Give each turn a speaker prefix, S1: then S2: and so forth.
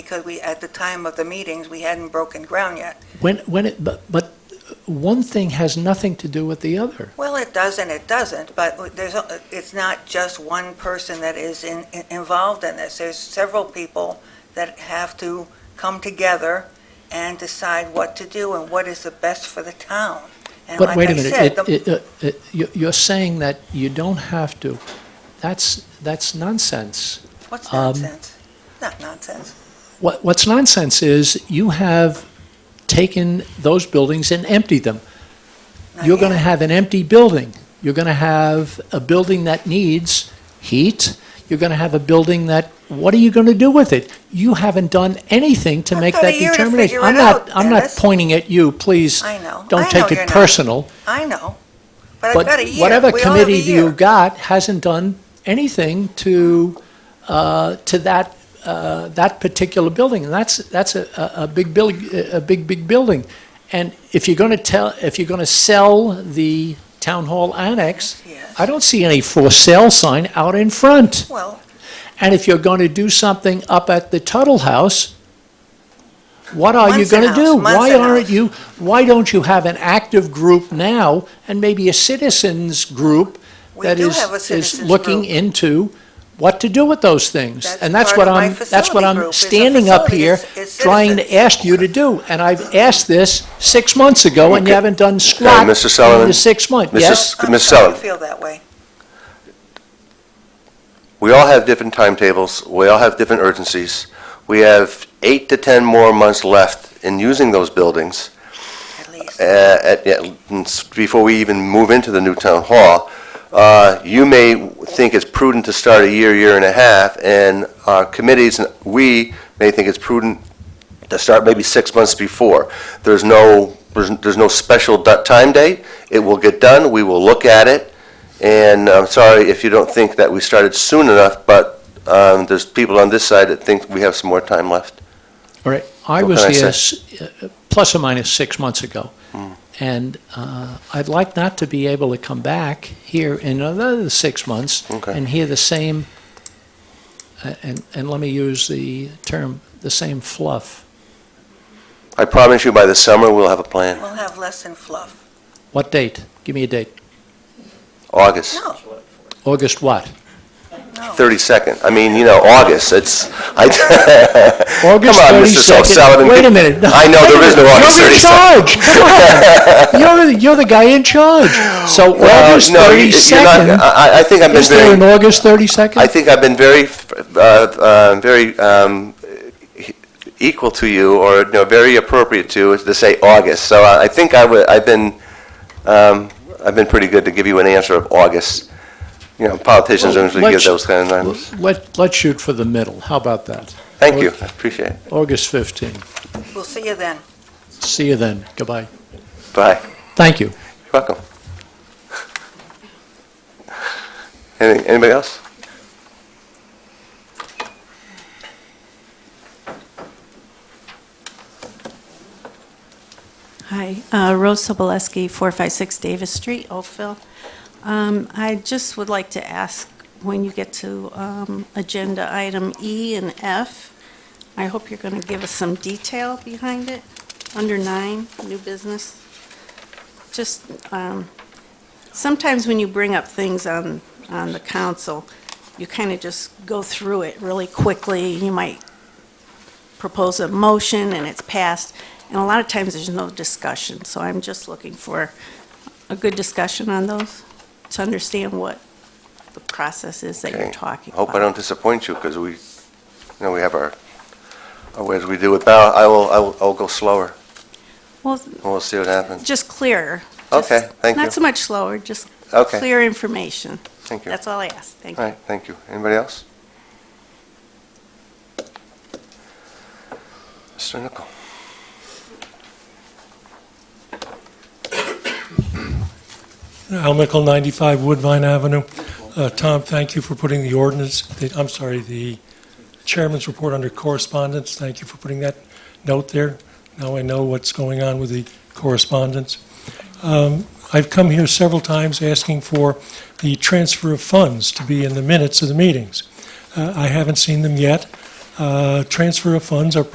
S1: because we, at the time of the meetings, we hadn't broken ground yet.
S2: When, when it, but, but one thing has nothing to do with the other.
S1: Well, it does and it doesn't, but there's, a- it's not just one person that is in, in- involved in this. There's several people that have to come together and decide what to do and what is the best for the town. And
S2: But
S1: like
S2: wait a
S1: I
S2: minute,
S1: said,
S2: it,
S1: the-
S2: it, uh, it, you- you're saying that you don't have to. That's, that's nonsense.
S1: What's
S2: um,
S1: nonsense? Not nonsense.
S2: What, what's nonsense is you have taken those buildings and emptied them.
S1: Not
S2: You're going to
S1: yet.
S2: have an empty building. You're going to have a building that needs heat. You're going to have a building that, what are you going to do with it? You haven't done anything to
S1: I've
S2: make
S1: got a
S2: that
S1: year to
S2: determination.
S1: figure
S2: I'm
S1: it
S2: not,
S1: out,
S2: I'm not
S1: Dennis.
S2: pointing at you, please.
S1: I know. I
S2: Don't
S1: know
S2: take
S1: you're
S2: it
S1: not.
S2: personal.
S1: I know, but I've
S2: But
S1: got a year.
S2: whatever
S1: We all have a
S2: committee
S1: year.
S2: you got hasn't done anything to, uh, to that, uh, that particular building. And that's, that's a, a a big building, a big, big building. And if you're going to tell, if you're going to sell the town hall annex,
S1: Yes.
S2: I don't see any for sale sign out in front.
S1: Well,
S2: And if you're going to do something up at the Tuttle House, what are you
S1: Munson
S2: going to do?
S1: House,
S2: Why
S1: Munson
S2: aren't
S1: House.
S2: you, why don't you have an active group now and maybe a citizens group
S1: We
S2: that
S1: do
S2: is,
S1: have a
S2: is
S1: citizens
S2: looking
S1: group.
S2: into what to do with those things?
S1: That's
S2: And that's
S1: part
S2: what
S1: of my
S2: I'm, that's what
S1: facility group,
S2: I'm
S1: is a
S2: standing up
S1: facility,
S2: here
S1: it's- it's
S2: trying to
S1: citizens.
S2: ask you to do. And I've asked this six months ago and you
S3: Okay.
S2: haven't done squat
S3: Mr. Sullivan?
S2: in the six months.
S3: Mrs.
S2: Yes?
S1: I'm
S3: Ms.
S1: sorry you
S3: Sullivan.
S1: feel that way.
S3: We all have different timetables, we all have different urgencies. We have eight to 10 more months left in using those buildings
S1: At least.
S3: uh, at- at- before we even move into the new town hall. Uh, You may think it's prudent to start a year, year and a half, and our committees, and we may think it's prudent to start maybe six months before. There's no, there's there's no special du- time date. It will get done, we will look at it, and I'm sorry if you don't think that we started soon enough, but um, there's people on this side that think we have some more time left.
S2: All right, I
S3: What
S2: was
S3: can I Hmm.
S2: here s- uh, plus or minus six months ago, and uh, I'd like not to be able to come back here in another six months
S3: Okay.
S2: and hear the same, uh, and, and let me use the term, the same fluff.
S3: I promise you by the summer, we'll have a plan.
S1: We'll have less than fluff.
S2: What date? Give me a date.
S3: August.
S1: No,
S2: August what?
S1: no.
S3: 32nd. I mean, you know, August, it's, I,
S2: August
S3: on, Mr.
S2: 32nd.
S3: Sullivan.
S2: Wait a minute. No,
S3: I know
S2: wait a
S3: there is no
S2: minute.
S3: August
S2: You're in
S3: 32nd.
S2: charge. Come on. You're, you're the guy in charge. So
S3: well,
S2: August
S3: no, you- you're not,
S2: 32nd,
S3: I, I- I think I've been
S2: is there an
S3: very,
S2: August 32nd?
S3: I think I've been very, uh, uh, very, um, e- equal to you, or, no, very appropriate to, is to say August. So I I think I would, I've been, um, I've been pretty good to give you an answer of August. You know, politicians
S2: Well,
S3: usually give
S2: let's-
S3: those kind of numbers.
S2: Let, let's shoot for the middle. How about that?
S3: Thank you, I appreciate it.
S2: August 15.
S1: We'll see you then.
S2: See you then. Goodbye.
S3: Bye.
S2: Thank you.
S3: You're welcome. Any- Anybody else?
S4: Hi, uh, Rose Soboleski, 456 Davis Street, Oakville. Um, I just would like to ask, when you get to um, Agenda Item E and F, I hope you're going to give us some detail behind it, under nine, new business. Just, um, sometimes when you bring up things on, on the council, you kind of just go through it really quickly. You might propose a motion and it's passed, and a lot of times there's no discussion, so I'm just looking for a good discussion on those, to understand what the process is that you're
S3: Okay.
S4: talking about.
S3: Hope I don't disappoint you, because we, you know, we have our, our ways we do it, but I will, I will, I'll go slower,
S4: Well,
S3: and we'll see what happens.
S4: just clearer.
S3: Okay,
S4: Just
S3: thank you.
S4: Not so much slower, just
S3: Okay.
S4: clear information.
S3: Thank you.
S4: That's all I ask, thank you.
S3: All right, thank you. Anybody else? Mr. Nichol?
S5: Al Mickle, 95 Woodvine Avenue. Uh, Tom, thank you for putting the ordinance, the- I'm sorry, the chairman's report under correspondence. Thank you for putting that note there. Now I know what's going on with the correspondence. Um, I've come here several times asking for the transfer of funds to be in the minutes of the meetings. Uh, I haven't seen them yet. Uh, Uh, Transfer of funds are